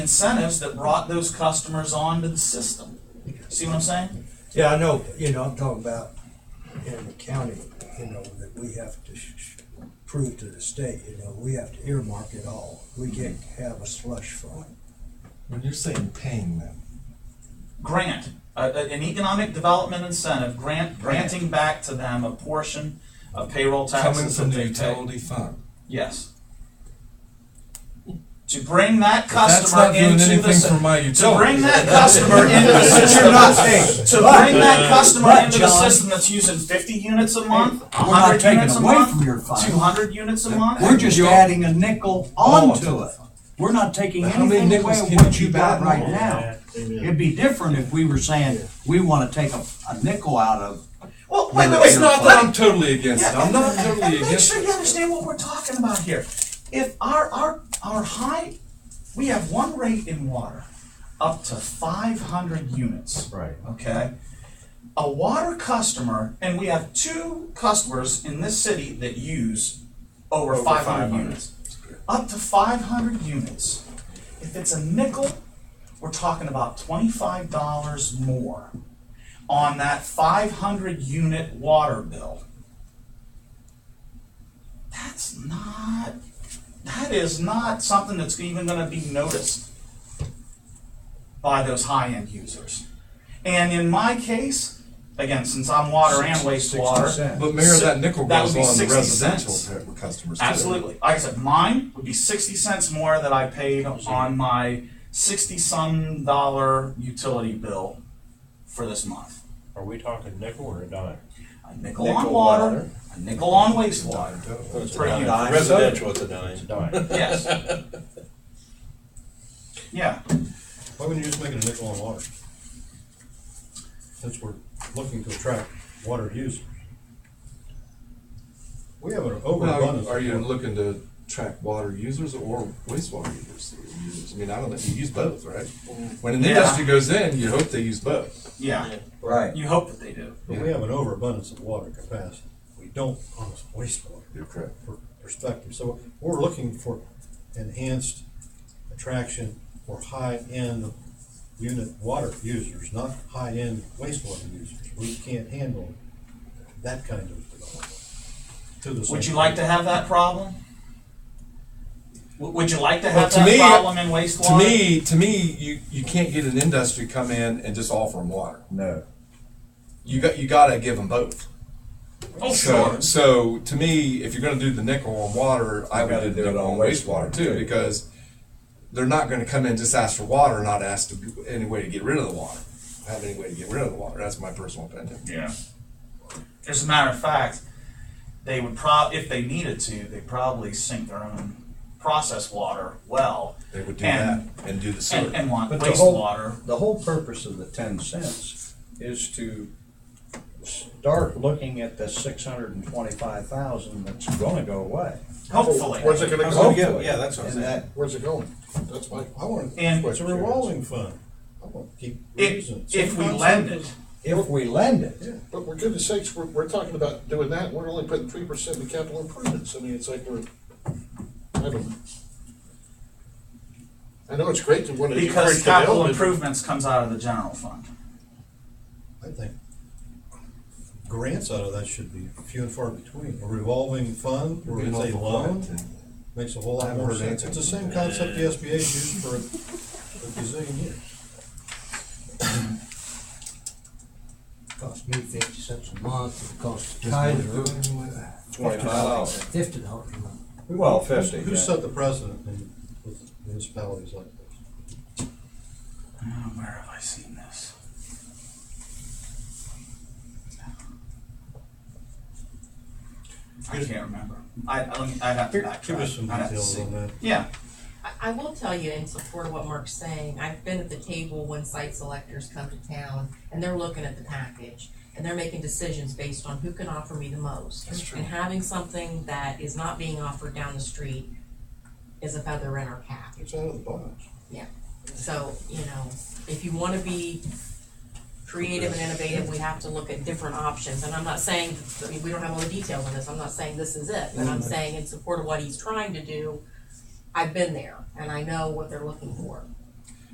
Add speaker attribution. Speaker 1: incentives that brought those customers onto the system. See what I'm saying?
Speaker 2: Yeah, I know, you know, I'm talking about in the county, you know, that we have to sh- sh- prove to the state, you know, we have to earmark it all. We can't have a slush fund.
Speaker 3: When you're saying paying them,
Speaker 1: Grant, a- a- an economic development incentive, grant, granting back to them a portion of payroll
Speaker 3: coming
Speaker 1: taxes
Speaker 3: from
Speaker 1: that
Speaker 3: the
Speaker 1: they pay.
Speaker 3: utility fund.
Speaker 1: Yes. To bring that
Speaker 3: That's
Speaker 1: customer
Speaker 3: not doing
Speaker 1: into the,
Speaker 3: anything for
Speaker 1: s-
Speaker 3: my
Speaker 1: to bring
Speaker 3: utility.
Speaker 1: that customer into the
Speaker 2: But
Speaker 1: system.
Speaker 2: you're not paying.
Speaker 1: To bring that customer
Speaker 2: but,
Speaker 1: into the
Speaker 2: John-
Speaker 1: system that's using fifty units a month,
Speaker 4: We're not
Speaker 1: hundred
Speaker 4: taking
Speaker 1: units a
Speaker 4: away from
Speaker 1: month,
Speaker 4: your
Speaker 1: two
Speaker 4: fund.
Speaker 1: hundred units a month.
Speaker 4: We're just
Speaker 3: You're-
Speaker 4: adding a nickel onto it. We're not taking
Speaker 3: How many
Speaker 4: anything away
Speaker 3: nickels
Speaker 4: from
Speaker 3: can
Speaker 4: what
Speaker 3: you
Speaker 4: you got
Speaker 3: buy
Speaker 4: right
Speaker 3: more?
Speaker 4: now. It'd be different if we were saying, we wanna take a, a nickel out of,
Speaker 1: Well, wait, wait, wait,
Speaker 3: It's not that I'm totally against it,
Speaker 1: Yeah,
Speaker 3: I'm not
Speaker 1: and- and-
Speaker 3: totally
Speaker 1: and Make
Speaker 3: against
Speaker 1: sure
Speaker 3: it.
Speaker 1: you understand what we're talking about here. If our, our, our high, we have one rate in water, up to five hundred units. Right. Okay? A water customer, and we have two customers in this city that use over five hundred units. Up to five hundred units. If it's a nickel, we're talking about twenty-five dollars more on that five hundred unit water bill. That's not, that is not something that's even gonna be noticed by those high-end users. And in my case, again, since I'm water and
Speaker 2: Sixty
Speaker 1: wastewater,
Speaker 2: cents.
Speaker 3: But Mayor, that nickel
Speaker 1: That would
Speaker 3: goes
Speaker 1: be
Speaker 3: on the
Speaker 1: 60
Speaker 3: residential
Speaker 1: cents.
Speaker 3: pa- customers too.
Speaker 1: absolutely, like I said, mine would be sixty cents more that I paid on my sixty-some dollar utility bill for this month.
Speaker 5: Are we talking nickel or a dime?
Speaker 1: A nickel on water, a nickel on wastewater,
Speaker 6: It's
Speaker 1: For
Speaker 6: a dime.
Speaker 1: dime.
Speaker 6: Residential, it's a dime.
Speaker 5: It's a dime.
Speaker 1: yes. Yeah,
Speaker 7: Why wouldn't you just make it a nickel on water? Since we're looking to attract water use. We have an
Speaker 3: Now,
Speaker 7: overabundance.
Speaker 3: are you looking to track water users or wastewater users? users? I mean, I don't know, you use both, right? When an
Speaker 1: Mm. Yeah.
Speaker 3: industry goes in, you hope they use both.
Speaker 1: yeah,
Speaker 4: right,
Speaker 1: you hope that they do.
Speaker 7: But we have an overabundance of water capacity. We don't on this wastewater
Speaker 3: You're correct.
Speaker 7: per- perspective. So we're looking for enhanced attraction for high-end unit water users, not high-end wastewater users. We can't handle that kind of development. to the
Speaker 1: Would
Speaker 7: same
Speaker 1: you like to
Speaker 7: degree.
Speaker 1: have that problem? W- Would you like to have
Speaker 3: to
Speaker 1: that
Speaker 3: me,
Speaker 1: problem in
Speaker 3: To
Speaker 1: wastewater?
Speaker 3: me, to me, you, you can't get an industry come in and just offer them water.
Speaker 6: No.
Speaker 3: You got, you gotta give them both.
Speaker 1: Oh,
Speaker 3: So,
Speaker 1: sure,
Speaker 3: so to me, if you're gonna do the nickel on water, I would
Speaker 6: gotta
Speaker 3: do the
Speaker 6: do it
Speaker 3: nickel
Speaker 6: on
Speaker 3: on wastewater
Speaker 6: wastewater,
Speaker 3: too,
Speaker 6: too.
Speaker 3: because they're not gonna come in just ask for water, and not ask to, any way to get rid of the water, have any way to get rid of the water, that's my personal opinion.
Speaker 1: yeah. As a matter of fact, they would prob, if they needed to, they'd probably sink their own process water well
Speaker 3: They would do that
Speaker 1: And-
Speaker 3: and do the
Speaker 1: and,
Speaker 3: sewer.
Speaker 1: and want
Speaker 4: But the whole-
Speaker 1: wastewater.
Speaker 4: the whole purpose of the ten cents is to start looking at the six hundred and twenty-five thousand that's gonna go away.
Speaker 1: hopefully.
Speaker 8: Where's it gonna
Speaker 4: was
Speaker 8: go?
Speaker 4: gonna get-
Speaker 8: yeah, that's
Speaker 4: And that,
Speaker 8: Where's it going? That's my,
Speaker 7: I want to.
Speaker 1: And
Speaker 7: It's a revolving fund. I want to keep
Speaker 1: if,
Speaker 7: reason.
Speaker 1: if we lend it,
Speaker 4: if we lend it,
Speaker 8: but we're goodness sakes, we're, we're talking about doing that, and we're only putting three percent in capital improvements, I mean, it's like we're, I don't know. I know it's great to want to
Speaker 1: because
Speaker 8: encourage
Speaker 1: capital
Speaker 8: development.
Speaker 1: improvements comes out of the general fund.
Speaker 7: I think grants out of that should be few and far between. A revolving fund,
Speaker 3: You're
Speaker 7: where
Speaker 3: being
Speaker 7: it's a
Speaker 3: awful
Speaker 7: loan,
Speaker 3: quiet.
Speaker 7: makes a whole lot
Speaker 3: haven't
Speaker 7: more
Speaker 3: heard
Speaker 7: sense. It's
Speaker 3: anything.
Speaker 7: the same concept the SBA used for a gazillion years.
Speaker 2: Cost me fifty cents a month, it costs Kaiser
Speaker 6: Twenty-five dollars.
Speaker 2: fifty dollars a month.
Speaker 6: Well, fifty.
Speaker 7: Who
Speaker 6: yeah.
Speaker 7: set the precedent in with municipalities like this?
Speaker 1: Oh, where have I seen this? I can't remember. I, I don't, I'd have to backtrack.
Speaker 7: Give us some
Speaker 1: I'd have to
Speaker 7: details
Speaker 1: see.
Speaker 7: on that.
Speaker 1: Yeah,
Speaker 9: I, I will tell you in support of what Mark's saying, I've been at the table when site selectors come to town and they're looking at the package and they're making decisions based on who can offer me the most. That's true. And having something that is not being offered down the street is a feather in our cap.
Speaker 7: It's out of the box.
Speaker 9: So, you know, if you wanna be creative and innovative, we have to look at different options, and I'm not saying, I mean, we don't have all the details on this, I'm not saying this is it, but I'm saying in support of what he's trying to do, I've been there, and I know what they're looking for.